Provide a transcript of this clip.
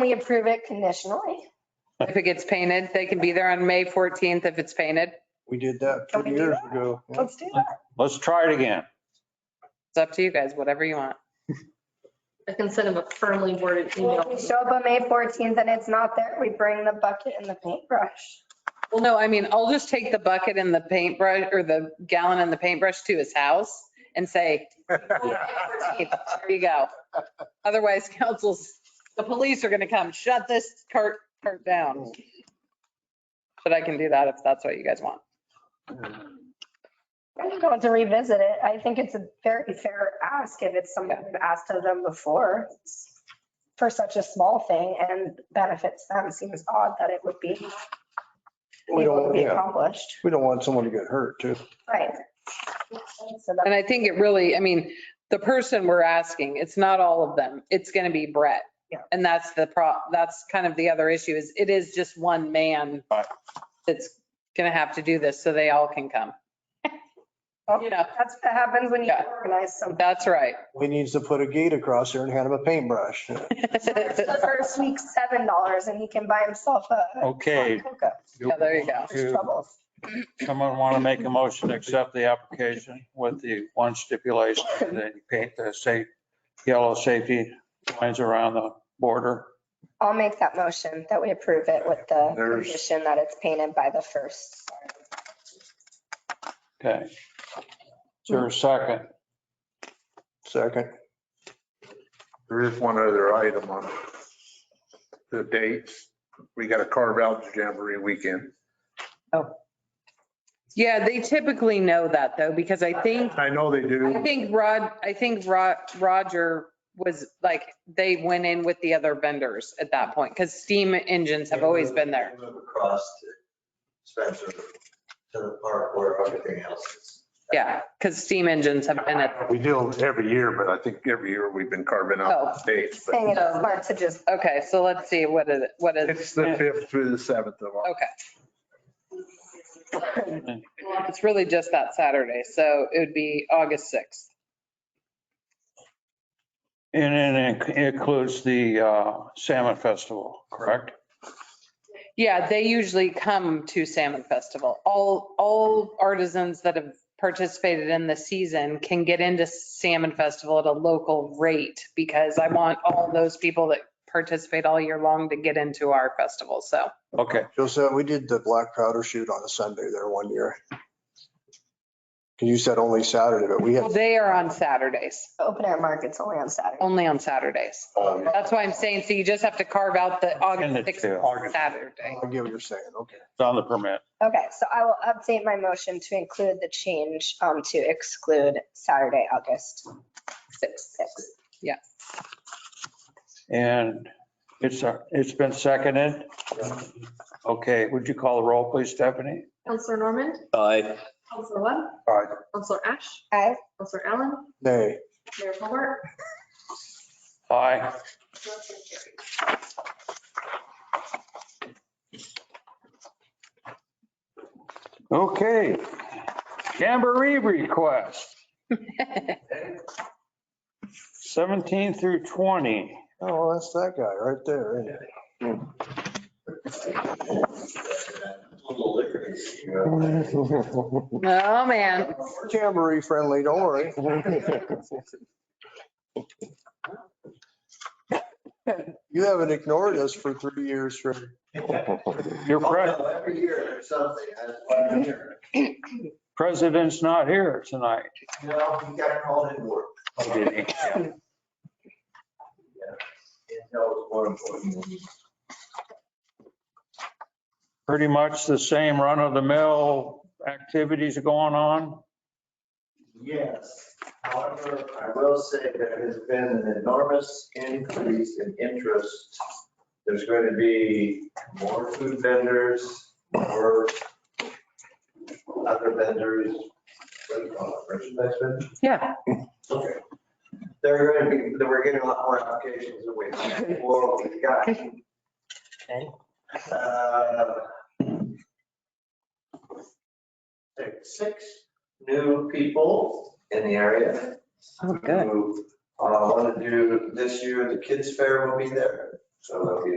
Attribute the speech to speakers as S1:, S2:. S1: We approve it conditionally.
S2: If it gets painted, they can be there on May 14th if it's painted.
S3: We did that
S1: Can
S3: two
S1: we do
S3: years
S1: that?
S3: ago. Yeah.
S1: Let's do that.
S4: Let's try it again.
S2: It's up to you guys, whatever you want.
S5: I can send him a firmly worded
S1: Well,
S5: email.
S1: If we show up on May 14th and it's not there, we bring the bucket and the paintbrush.
S2: Well, no, I mean, I'll just take the bucket and the paintbrush or the gallon and the paintbrush to his house and say, "Hey, there you go. Otherwise, councils, the police are going to come shut this cart, cart down. But I can do that if that's what you guys want.
S1: I'm going to revisit it. I think it's a very fair ask if it's something we've asked of them before for such a small thing and benefits them. Seems odd that it would be
S3: We
S1: able to
S3: don't,
S1: be
S3: yeah,
S1: accomplished.
S3: we don't want someone to get hurt too.
S1: Right. So that-
S2: And I think it really, I mean, the person we're asking, it's not all of them. It's going to be Brett.
S1: Yeah.
S2: And that's the pro, that's kind of the other issue is it is just one man
S4: Right.
S2: that's going to have to do this so they all can come. You know,
S1: That's what happens when you
S2: Yeah.
S1: organize something.
S2: that's right.
S3: We needs to put a gate across there and hand him a paintbrush.
S1: The First week, seven dollars and he can buy himself a
S4: Okay.
S1: Coca.
S2: Yeah, there you go.
S1: There's troubles.
S4: Someone want to make a motion to accept the application with the one stipulation that you paint the safe, yellow safety lines around the border.
S1: I'll make that motion that we approve it with the
S3: There's-
S1: condition that it's painted by the first.
S4: Okay. Is there a second?
S3: Second,
S6: There is one other item on the dates. We got to carve out the Jamboree weekend.
S2: Yeah, they typically know that though, because I think,
S6: I know they
S2: I
S6: do.
S2: think Rod, I think Ro- Roger was like, they went in with the other vendors at that point because steam engines have always been there.
S7: Move across to Spencer, to the park where everything else is.
S2: Yeah, because steam engines have been at,
S6: We do every year, but I think every year we've been carving out the dates. but
S1: Saying it's smart to just
S2: okay, so let's see, what is, it? what is,
S6: It's the fifth through the seventh of August.
S2: okay. It's really just that Saturday, so it would be August 6th.
S4: And it includes the uh, Salmon Festival, correct?
S2: Yeah, they usually come to Salmon Festival. All, all artisans that have participated in the season can get into Salmon Festival at a local rate because I want all those people that participate all year long to get into our festival, so.
S4: Okay,
S3: Joseph, we did the black powder shoot on a Sunday there one year. 'Cause you said only Saturday, but we
S2: Well,
S3: had,
S2: They are on Saturdays,
S1: open air markets only on Saturday.
S2: only on Saturdays.
S7: Um,
S2: That's why I'm saying, so you just have to carve out the
S4: And the
S2: August
S4: two.
S2: 6th Saturday.
S3: I get what you're saying, okay.
S4: it's on the permit.
S1: Okay, so I will update my motion to include the change um, to exclude Saturday, August 6th.
S4: And it's, uh, it's been seconded. Okay, would you call the roll, please, Stephanie?
S5: Counselor Norman?
S8: Aye.
S5: Counselor Webb?
S3: Aye.
S5: Counselor Ash?
S1: Aye.
S5: Counselor Allen?
S3: Nay.
S5: Mayor Hobart?
S4: Aye. Okay. Jamboree request, 17 through 20.
S3: Oh, that's that guy right there. isn't it?
S7: Little liquor is, you know,
S2: Oh, man.
S3: Jamboree friendly, don't worry. You haven't ignored us for three years, Rick.
S4: Your
S7: Oh,
S4: pre-
S7: no, Every year there's something, that's why I'm here.
S4: president's not here tonight.
S7: Well, Oh, he got called in work.
S4: Yeah.
S7: And that was more important.
S4: Pretty much the same run-of-the-mill activities going on.
S7: Yes, however, I will say there has been an enormous increase in interest. There's going to be more food vendors, more other vendors. what do you call it, merchandise vendors?
S2: Yeah.
S7: Okay. There are going to be, there- we're getting a lot more applications than we had before we got. Uh, Six six new people in the area
S2: Oh,
S7: who uh, want to do, this year, the kids' fair will be there. So there'll be